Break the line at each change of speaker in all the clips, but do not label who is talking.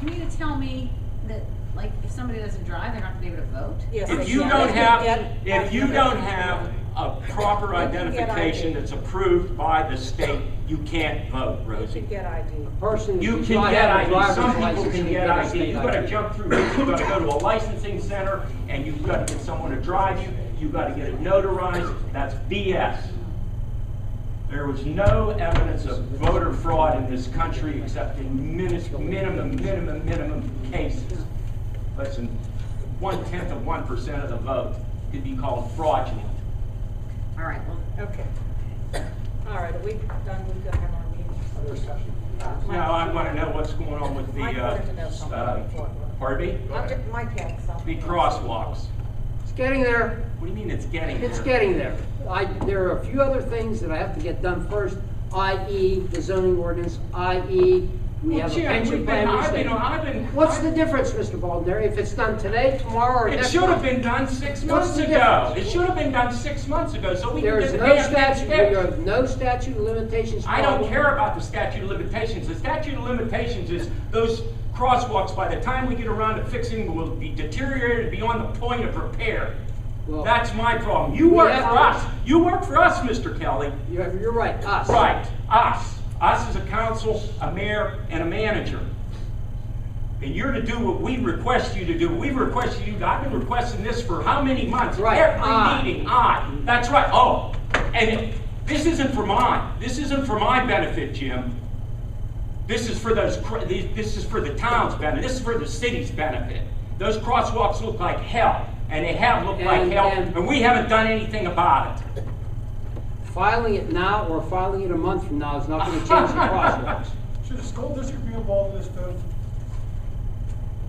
you mean to tell me that, like, if somebody doesn't drive, they're not gonna be able to vote?
Yes,
If
they
you
can.
don't
They can
have,
get
if you
ID.
don't have a proper
They can get
identification
ID.
that's approved by the state, you can't vote,
You
Rosie.
should get ID.
Person.
You
who's
can
not
get
having a
ID, some
driver's
people
license
can
should
get
a
ID,
state
you've gotta
ID.
jump through hoops, you've gotta go to a licensing center, and you've gotta get someone to drive you, you've gotta get it notarized, that's BS. There was no evidence of voter fraud in this country except in minis- minimum, minimum, minimum cases. Less than one-tenth of one percent of the vote could be called fraudulent.
All right, well,
Okay. All right, are we done? We're gonna have our meeting.
Other discussion?
Uh, Mike-
Now, I wanna know what's going on with the,
Mike wanted to know
uh,
something
uh,
before.
pardon me?
I'm ju- Mike had
The
something.
crosswalks.
It's getting there.
What do you mean it's getting
It's
there?
getting there. I, there are a few other things that I have to get done first, i.e. the zoning ordinance, i.e. we
Well,
have a
Jim,
pension
we've
plan.
been-
we
I've
stay-
been- I've been-
What's
I've-
the difference, Mr. Baldner, if it's done today, tomorrow, or
It
next
should have
month?
been done six
What's
months
the
ago. It
difference?
should have been done six months ago, so we can
There
get
is
the
no
damn
statute,
thing
there are
fixed.
no statute of limitations.
I don't
problem.
care about the statute of limitations. The statute of limitations is those crosswalks, by the time we get around to fixing, will be deteriorated beyond the point of repair.
Well-
That's my problem. You
We
work
have
for
to-
us. You work for us, Mr. Kelly.
You're, you're right, us.
Right, us. Us as a council, a mayor, and a manager. And you're to do what we request you to do. We've requested you, I've been requesting this for how many months?
Right, Ah. I.
Every meeting, I. That's right, oh. And this isn't for mine, this isn't for my benefit, Jim. This is for those, cr- these- this is for the town's benefit, this is for the city's benefit. Those crosswalks look like hell, and they have looked like
And-
hell,
and-
and we haven't done anything about it.
Filing it now or filing it a month from now is not gonna change the crosswalks.
Should the school district be involved in this, though?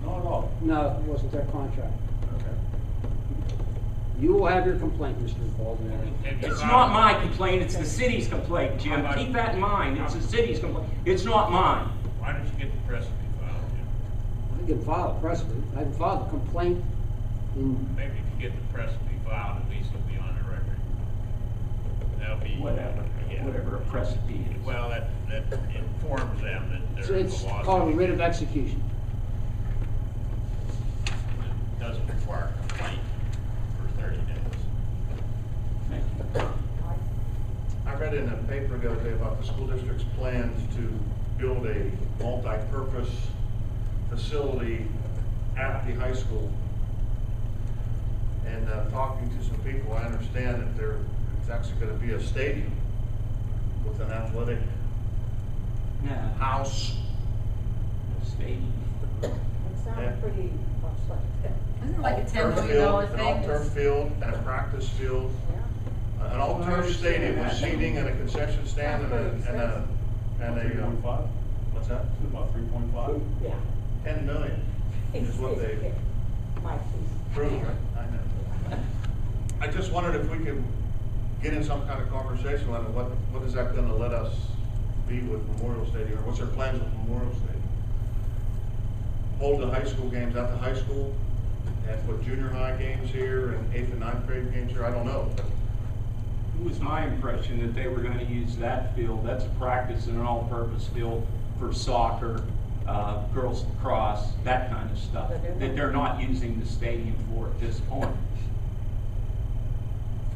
Not at all.
No, it wasn't their contract.
Okay.
You will have your complaint, Mr. Baldner.
It's not my complaint, it's the city's complaint, Jim. Keep that in mind, it's the city's complaint. It's not mine.
Why don't you get the press to be filed, Jim?
I can file a press, I can file a complaint in,
Maybe if you get the press to be filed, at least it'll be on the record. That'll be.
Whatever,
Yeah.
whatever a precedent is.
Well, that, that informs them that
it's-
there's
it's
a lawsuit.
called a writ of execution.
that Doesn't require a complaint for thirty days.
Thank you.
I read in a paper the other day about the school district's plans to build a multi-purpose facility at the high school. And uh, talking to some people, I understand that there, it's actually gonna be a stadium with an athletic
No,
house.
stadium.
It sounded pretty much like that.
isn't it like a ten
all-turf
million
field-
dollar
An all-turf
thing?
field and a practice field,
Yeah.
an all-turf stadium with seating and a concession stand and a, and a, and
Three
a,
point
um,
five,
what's that?
uh, about three point five.
Yeah.
Ten million is what they
Mike, please.
approved. I know. I just wondered if we could get in some kind of conversation on it. what, what is that gonna let us be with Memorial Stadium? Or what's their plans with Memorial Stadium? Hold the high school games at the high school and put junior high games here and eighth and ninth grade games here, I don't know.
It was my impression that they were gonna use that field, that's a practice and an all-purpose field for soccer, uh, girls lacrosse, that kind of stuff.
But they're not.
That they're not using the stadium for at this point.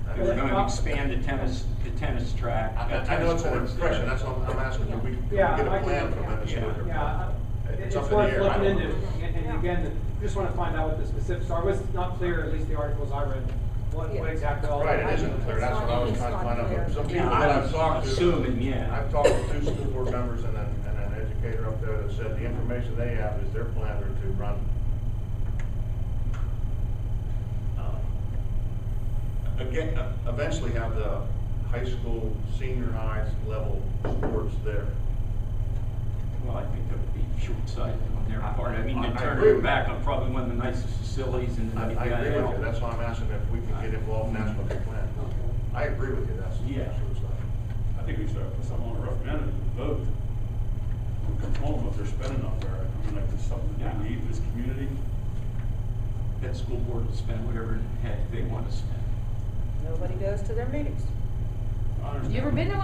I
They were
don't know.
gonna expand the tennis, the tennis track.
I,
uh,
I know it's an
tennis courts there.
impression, that's what I'm asking, if we, if we
Yeah,
get
I
a plan
do.
from them. as to what they're-
Yeah, I-
It's
it's
up
worth
in the air. I
looking
don't
into,
know.
and, and again, just wanna find out what the specifics are, was not clear, at least the articles I read, what, what exactly all.
Right, it isn't clear, that's what I was trying to find out, but some people
Yeah,
that
I
I've
was
talked to.
assuming, yeah.
I've talked to two school board members and an, and an educator up there that said the information they have is their plan are to run um, again, uh, eventually have the high school, senior high level sports there.
Well, I think that would be short-sighted on their part. I mean,
I-
to
I
turn
agree
it
with
back
you.
on probably one of the nicest facilities in the
I, I agree with you,
WPIL.
that's why I'm asking if we can get involved in that's what they plan. I agree with you, that's.
Yeah.
that's what it's like.
I think we should have put something on a referendum and vote. and Control them if they're spending up there. I mean, like, it's something that we need in this community.
That school board will spend whatever the heck they want to spend.
Nobody goes to their meetings.
I understand.
You ever been to